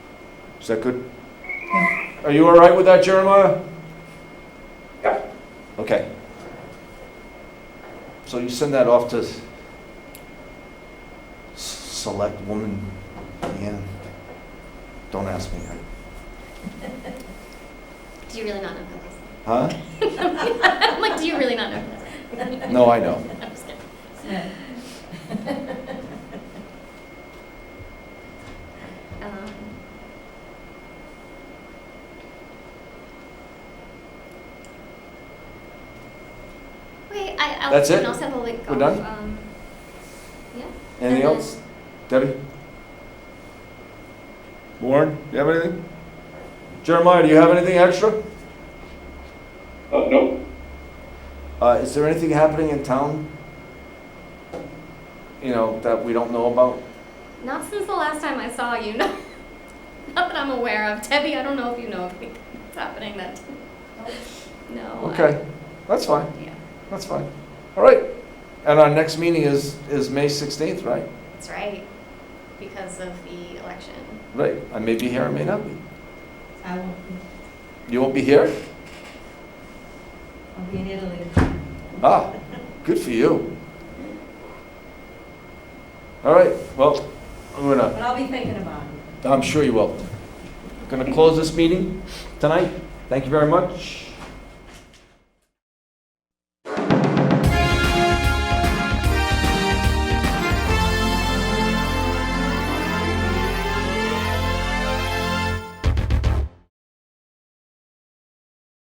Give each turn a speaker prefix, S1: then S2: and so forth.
S1: Is that good? Are you all right with that, Jeremiah?
S2: Yeah.
S1: Okay. So you send that off to s- select woman, Leanne? Don't ask me.
S3: Do you really not know who
S1: Huh?
S3: this? I'm like, do you really not know who this?
S1: No, I know.
S3: I'm just kidding. Um, Wait, I, I'll.
S1: That's
S3: and
S1: it?
S3: I'll send the link
S1: We're
S3: off,
S1: done?
S3: um, Yeah.
S1: Anything
S3: And
S1: else? Debbie? Lauren, do you have anything? Jeremiah, do you have anything extra?
S2: Uh, nope.
S1: Uh, is there anything happening in town? You know, that we don't know about?
S3: Not since the last time I saw you, no. Not that I'm aware of. Debbie, I don't know if you know of anything that's happening that. No. I-
S1: Okay, that's fine.
S3: Yeah,
S1: That's fine. All right. And our next meeting is, is May 16th, right?
S3: that's right, because of the election.
S1: Right. I may be here, I may not be.
S4: I will,
S1: You won't be here?
S4: I'll be in Italy.
S1: Ah, good for you. All right, well, I'm gonna,
S4: But I'll be thinking about it.
S1: I'm sure you will. Gonna close this meeting tonight. Thank you very much.